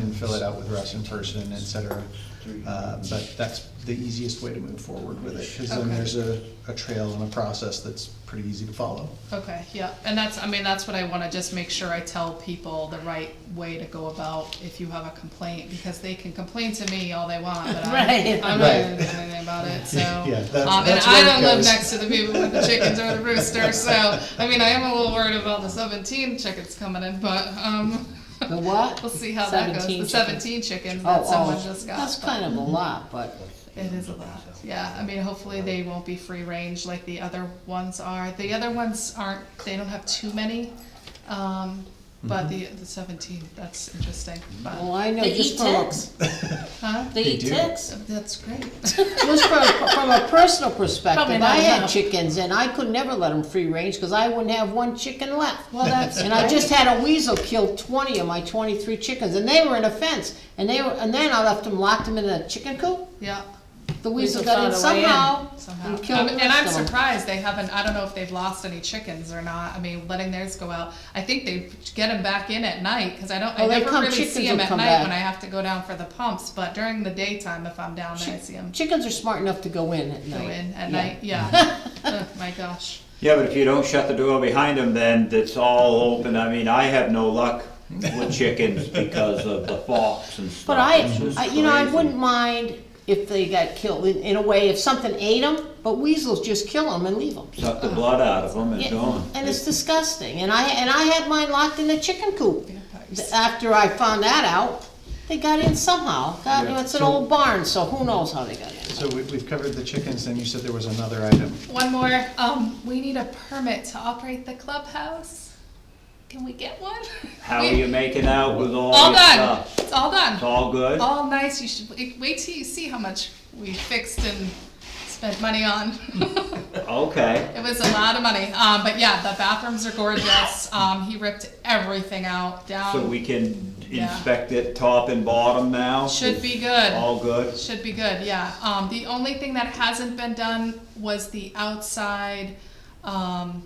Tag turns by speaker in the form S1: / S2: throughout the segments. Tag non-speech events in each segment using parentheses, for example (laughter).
S1: and fill it out with Russian person, et cetera. Uh, But that's the easiest way to move forward with it, because then
S2: Okay.
S1: there's a, a trail and a process that's pretty easy to follow.
S2: Okay, yeah, and that's, I mean, that's what I wanna just make sure I tell people the right way to go about if you have a complaint, because they can complain to me all they want,
S3: (laughs)
S2: but I,
S3: Right.
S2: I'm not gonna
S1: Right.
S2: do anything
S1: (laughs)
S2: about it, so.
S1: Yeah, that's-
S2: Um, and
S1: that's where
S2: I
S1: it
S2: don't live
S1: goes.
S2: next to the people with the chickens or the rooster, so, I mean, I am a little worried about the seventeen chickens coming in, but, um,
S3: The what?
S2: (laughs) we'll see how that goes, the
S3: 17 chickens.
S2: seventeen chickens
S3: Oh,
S2: that someone
S3: oh,
S2: just got.
S3: That's
S2: but-
S3: kind of a lot, but
S2: It is a lot, yeah, I mean, hopefully they won't be free range like the other ones are, the other ones aren't, they don't have too many, um, but the, the seventeen, that's interesting, but,
S3: well, I know
S4: They
S3: just
S4: eat
S3: from a,
S4: ticks?
S2: huh?
S4: They
S1: They
S4: eat
S1: do.
S4: ticks?
S2: That's great, (laughs)
S3: just from, from a personal
S4: Probably
S3: perspective,
S4: not
S3: I had
S4: enough.
S3: chickens and I could never let them free range because I wouldn't have one chicken left.
S2: well, that's
S3: And I
S2: great.
S3: just had a weasel kill twenty of my twenty-three chickens and they were in a fence and they were, and then I left them, locked them in a chicken coop.
S2: yeah,
S3: The weasel
S4: Weasel
S3: got in
S4: found a way in.
S3: somehow
S2: somehow,
S3: and killed
S2: Um,
S3: the
S2: and I'm
S3: rest of them.
S2: surprised they haven't, I don't know if they've lost any chickens or not, I mean, letting theirs go out, I think they get them back in at night, cause I don't, I
S3: Oh, they
S2: never
S3: come-
S2: really see
S3: chickens
S2: them
S3: will
S2: at
S3: come
S2: night
S3: back.
S2: when I have to go down for the pumps, but during the daytime, if I'm down there, I
S3: Chi-
S2: see them.
S3: Chickens are smart enough to go in at night.
S2: go in at
S3: Yeah.
S2: night.
S3: (laughs)
S2: Yeah. (laughs) oh, my gosh.
S5: Yeah, but if you don't shut the door behind them, then it's all open. I mean, I have no luck with chickens because of the fox and stuff.
S3: But I,
S5: It's just
S3: I, you know, I
S5: crazy.
S3: wouldn't mind if they got killed, in, in a way, if something ate them, but weasels just kill them and leave them.
S5: Suck the blood out of them and gone.
S3: And it's disgusting, and I, and I had mine locked in the chicken coop.
S2: Vampires.
S3: After I found that out, they got in somehow, God, you know, it's an
S1: Yeah, so-
S3: old barn, so who knows how they got in.
S1: So we, we've covered the chickens, and you said there was another item.
S2: One more. Um, we need a permit to operate the clubhouse. Can we get one?
S5: How are
S2: We-
S5: you making out with all
S2: All
S5: your
S2: done.
S5: stuff?
S2: It's all
S5: It's
S2: done.
S5: all good?
S2: All nice. You should wait wait till you see how much we fixed and spent money
S5: (laughs)
S2: on.
S5: Okay.
S2: It was a lot of money, um, but yeah, the bathrooms are
S5: (coughs)
S2: gorgeous. Um, he ripped everything out down.
S3: Um,
S5: So we can
S2: Yeah.
S5: inspect it top and bottom now?
S2: Should be good.
S5: All good?
S2: Should be good, yeah. Um, the only thing that hasn't been done was the outside, um,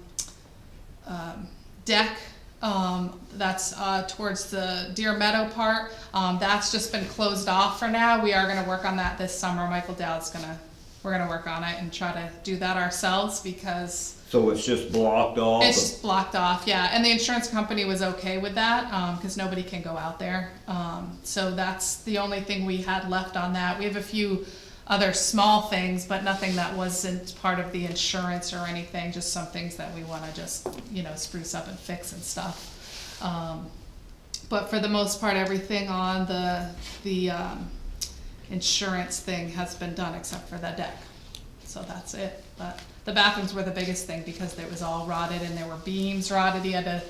S2: um, deck, um, that's, uh, towards the Deer Meadow part. Um, that's just been closed off for now. We are gonna work on that this summer. Michael Dowd's gonna, we're gonna work on it and try to do that ourselves because
S5: So it's just blocked off?
S2: it's just blocked off, yeah, and the insurance company was okay with that, um, cause nobody can go out there. Um, so that's the only thing we had left on that. We have a few other small things, but nothing that wasn't part of the insurance or anything, just some things that we wanna just, you know, spruce up and fix and stuff. Um, but for the most part, everything on the, the, um, insurance thing has been done except for the deck. So that's it, but the bathrooms were the biggest thing because it was all rotted and there were beams rotted, he had to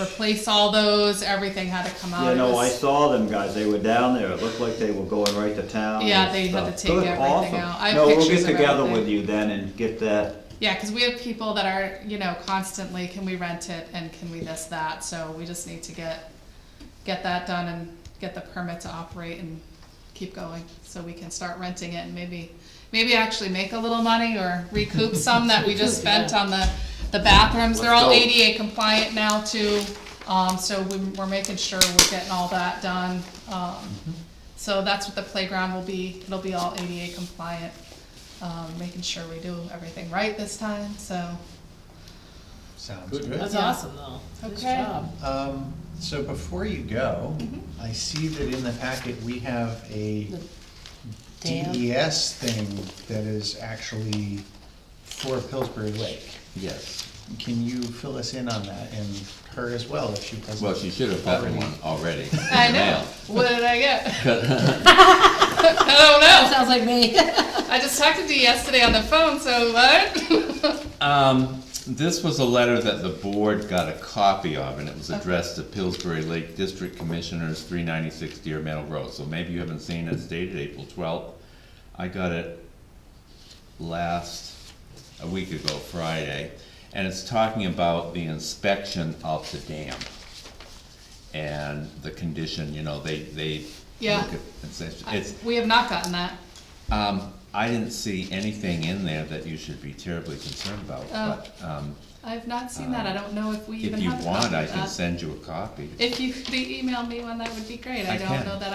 S2: replace all those, everything had to come out.
S5: You
S2: It
S5: know, I
S2: was-
S5: saw them guys, they were down there, it looked like they were going right to town and
S2: Yeah, they had to
S5: stuff.
S2: take
S5: Good,
S2: everything
S5: awesome.
S2: out. I have
S5: No, we'll
S2: pictures
S5: get
S2: of
S5: together
S2: everything.
S5: with you then and get that
S2: Yeah, because we have people that are, you know, constantly, can we rent it and can we this, that, so we just need to get, get that done and get the permit to operate and keep going, so we can start renting it and maybe, maybe actually make a little money or recoup some that we just spent on the, the bathrooms, they're all
S5: Let's go.
S2: ADA compliant now too, um, so we, we're making sure we're getting all that done, um, so that's what the playground will be, it'll be all ADA compliant, um, making sure we do everything right this time, so.
S1: Sounds good.
S3: That's
S2: Yeah.
S3: awesome, though. Good
S2: Okay.
S3: job.
S1: Um, so before you go, I see that in the packet, we have a
S3: Dam.
S1: DES thing that is actually for Pillsbury Lake.
S6: Yes.
S1: Can you fill us in on that and her as well if she doesn't?
S6: Well, she should have gotten one already.
S2: (laughs) I know. What did I
S6: (laughs)
S2: get? (laughs) I
S3: Sounds like me.
S2: don't know. I just talked to Dee yesterday on the phone, so what?
S6: Um, this was a letter that the board got a copy of, and it was addressed to Pillsbury Lake District Commissioners, three ninety-six Deer Meadow Road. So maybe you haven't seen it, it's dated April twelfth. I got it last, a week ago, Friday, and it's talking about the inspection of the dam. And the condition, you know, they, they
S2: Yeah.
S6: look at, it's, it's,
S2: (laughs) We have not gotten that.
S6: Um, I didn't see anything in there that you should be terribly concerned about, but, um,
S2: I've not seen that, I don't know if we Oh. even
S6: If you
S2: have a copy of
S6: want, I can
S2: that.
S6: send you a copy.
S2: If you could email me one, that would be great, I
S6: I
S2: don't
S6: can.
S2: know that I